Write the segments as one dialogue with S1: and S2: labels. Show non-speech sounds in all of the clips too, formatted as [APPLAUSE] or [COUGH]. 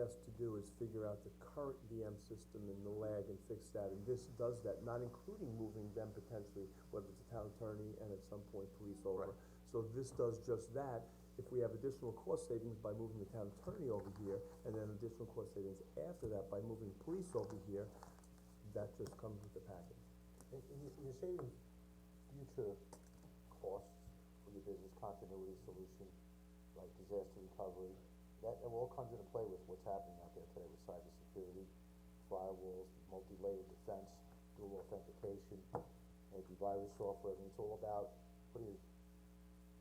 S1: asked to do is figure out the current VM system and the lag and fix that, and this does that, not including moving them potentially, whether it's a town attorney and at some point police over.
S2: Right.
S1: So this does just that, if we have additional cost savings by moving the town attorney over here, and then additional cost savings after that by moving police over here, that just comes with the package.
S2: And, and you- you're saving future costs for your business continuity solution, like disaster recovery. That, that all comes into play with what's happening out there today with cybersecurity, firewalls, multi-layered defense, dual authentication, antivirus software, I mean, it's all about putting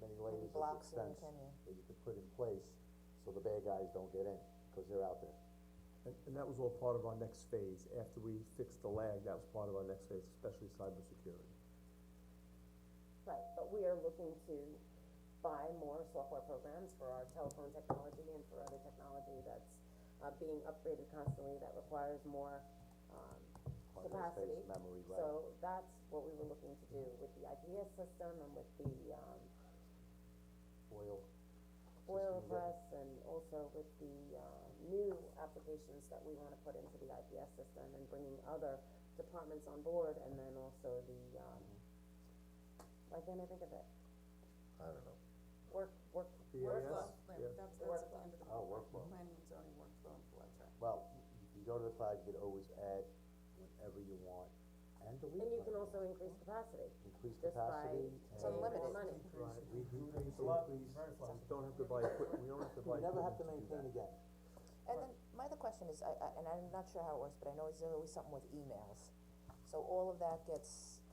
S2: many layers of
S3: blocks in,
S2: defense
S3: can you?
S2: that you could put in place, so the bad guys don't get in, cause they're out there.
S1: And, and that was all part of our next phase, after we fixed the lag, that was part of our next phase, especially cybersecurity.
S4: Right, but we are looking to buy more software programs for our telephone technology and for other technology that's, uh, being upgraded constantly that requires more, um,
S2: Hard drive
S4: capacity.
S2: space, memory, right.
S4: So that's what we were looking to do with the IPS system and with the, um,
S2: Oil,
S4: oil
S2: Systems, yeah.
S4: press and also with the, uh, new applications that we wanna put into the IPS system and bringing other departments on board and then also the, um,
S2: Mm-hmm.
S4: why can't I think of it?
S2: I don't know.
S4: Work, work,
S1: BAS?
S4: workflow.
S1: Yeah.
S3: That's, that's at the end of the
S2: Oh,
S3: book,
S2: workflow.
S3: planning and zoning workflow and flow chart.
S2: Well, you go to the cloud, you can always add whenever you want and delete.
S4: And you can
S2: whenever
S4: also increase capacity.
S2: Increase
S4: just by
S2: capacity
S4: It's
S2: and.
S4: unlimited.
S2: Right.
S4: money.
S2: Reduce,
S5: It's a lot,
S2: increase.
S5: very flexible.
S1: Don't have to buy equip, we don't have to
S2: You
S1: buy
S2: never have
S1: equipment
S2: to
S1: do
S2: maintain
S1: that.
S2: again.
S6: And then, my other question is, I, I, and I'm not sure how it works, but I know it's always something with emails. So all of that gets,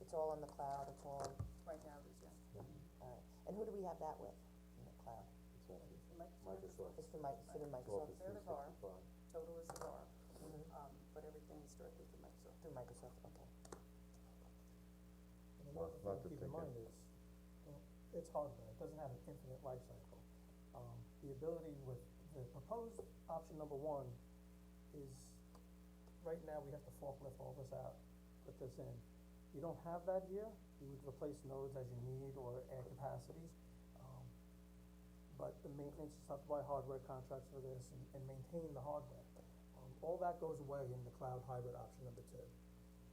S6: it's all in the cloud, it's all,
S3: Right now, it is, yeah.
S6: alright, and who do we have that with, in the cloud?
S2: It's actually
S3: Microsoft
S2: Microsoft.
S6: It's through my, it's through
S2: Office
S6: Microsoft, Mm-hmm,
S3: They're the bar.
S2: 365.
S3: total is the bar, um, but everything is directly through Microsoft.
S6: through Microsoft, okay.
S5: And Another thing to keep in mind is, you know, it's hardware, it doesn't have an infinite life cycle. Um, the ability with, the proposed option number one is, right now, we have to forklift all this out, put this in. You don't have that here, you would replace nodes as you need or add capacities, um, but the maintenance, you have to buy hardware contracts for this and, and maintain the hardware. Um, all that goes away in the cloud hybrid option number two.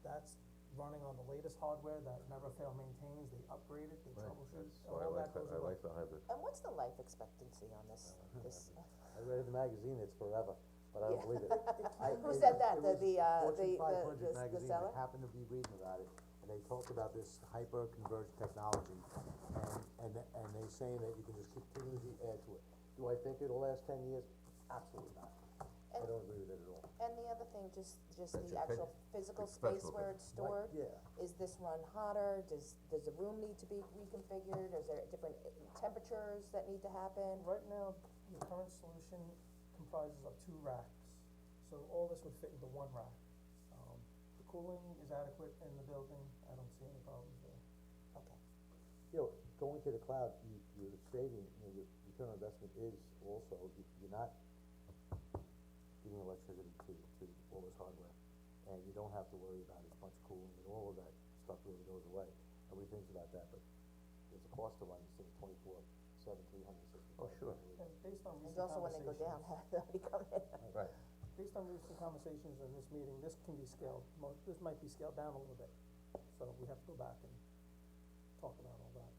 S5: That's running on the latest hardware that never fail maintains, they upgrade it, they troubleshoot,
S7: That's
S5: and
S7: why I
S5: all
S7: like the,
S5: that goes
S7: I
S5: away.
S7: like the hybrid.
S6: And what's the life expectancy on this, this,
S2: I read in the magazine, it's forever, but I don't believe
S6: [LAUGHS]
S2: it. I-
S6: Who
S2: it-
S6: said that?
S2: it
S6: The-
S2: was
S6: the, uh, the- the- the- the
S2: Fortune 500 magazine,
S6: seller?
S2: I happened to be reading about it, and they talked about this hyper-converged technology, and, and, and they saying that you can just continually add to it. Do I think it'll last ten years? Absolutely not. I
S6: And-
S2: don't agree with it at all.
S6: and the other thing, just, just
S7: That's
S6: the
S7: your
S6: actual
S7: opinion.
S6: physical
S7: It's
S6: space
S7: personal
S6: where
S7: opinion.
S6: it's stored?
S2: yeah.
S6: Is this run hotter, does, does the room need to be reconfigured, is there different uh, temperatures that need to happen?
S5: Right now, the current solution comprises of two racks, so all this would fit into one rack. Um, the cooling is adequate in the building, I don't see any problems there.
S6: Okay,
S2: you know, going to the cloud, you, you're saving, you know, your return on investment is also, you- you're not giving electricity to, to all this hardware. And you don't have to worry about as much cooling and all of that stuff really goes away. Nobody thinks about that, but there's a cost to run this thing twenty-four, seven, three hundred and sixty-five.
S7: Oh, sure.
S5: And based on recent
S6: and also when they go down, [LAUGHS]
S5: conversations-
S6: they'll be coming in.
S7: Right.
S5: based on recent conversations in this meeting, this can be scaled, mo- this might be scaled down a little bit, so we have to go back and talk about all that.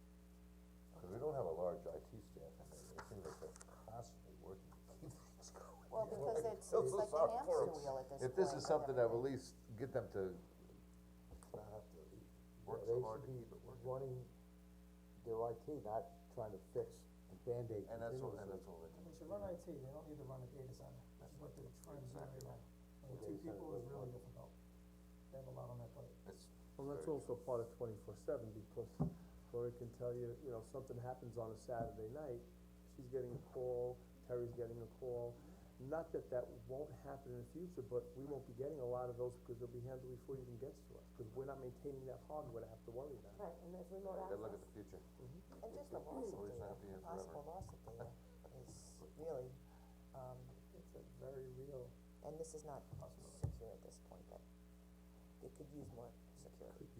S7: Cause we don't have a large IT staff and it it seems like they're constantly working to keep things going.
S6: Well, because it's,
S7: feel
S6: it's
S7: so
S6: like the
S7: sorry for
S6: hamster
S7: 'em.
S6: wheel at this point.
S7: If this is
S6: with
S7: something that
S6: everything.
S7: will at least get them to,
S2: Not have to, you know,
S7: Works
S2: they
S7: hard
S2: should
S7: to
S2: be
S7: keep it working.
S2: running their IT, not trying to fix and Band-Aid
S7: and that's all,
S2: continuously.
S7: and that's all they do.
S5: They should run IT, they don't need to run a data center, which is what they're trying to do right now. And
S2: Well,
S5: two
S2: data center
S5: people is
S2: doesn't
S5: really
S2: work.
S5: difficult, they have a lot on their plate.
S7: It's
S1: Well, that's
S7: very-
S1: also part of twenty-four seven, because Lori can tell you, you know, something happens on a Saturday night, she's getting a call, Terry's getting a call. Not that that won't happen in the future, but we won't be getting a lot of those, because they'll be handled before you even gets to us, because we're not maintaining that hardware to have to worry about.
S4: Right, and there's remote
S7: Gotta
S4: access.
S7: look at the future.
S6: And just the loss of
S7: Always
S6: data,
S7: happy and
S6: possible
S7: forever.
S6: loss of data
S7: [LAUGHS]
S6: is really, um,
S5: It's a very real,
S6: and this is not secure at this point, but it could use more security.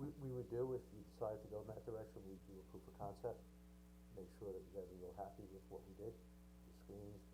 S2: We, we would do, if you decided to go in that direction, we'd do a proof of concept, make sure that you guys are real happy with what we did, the screens,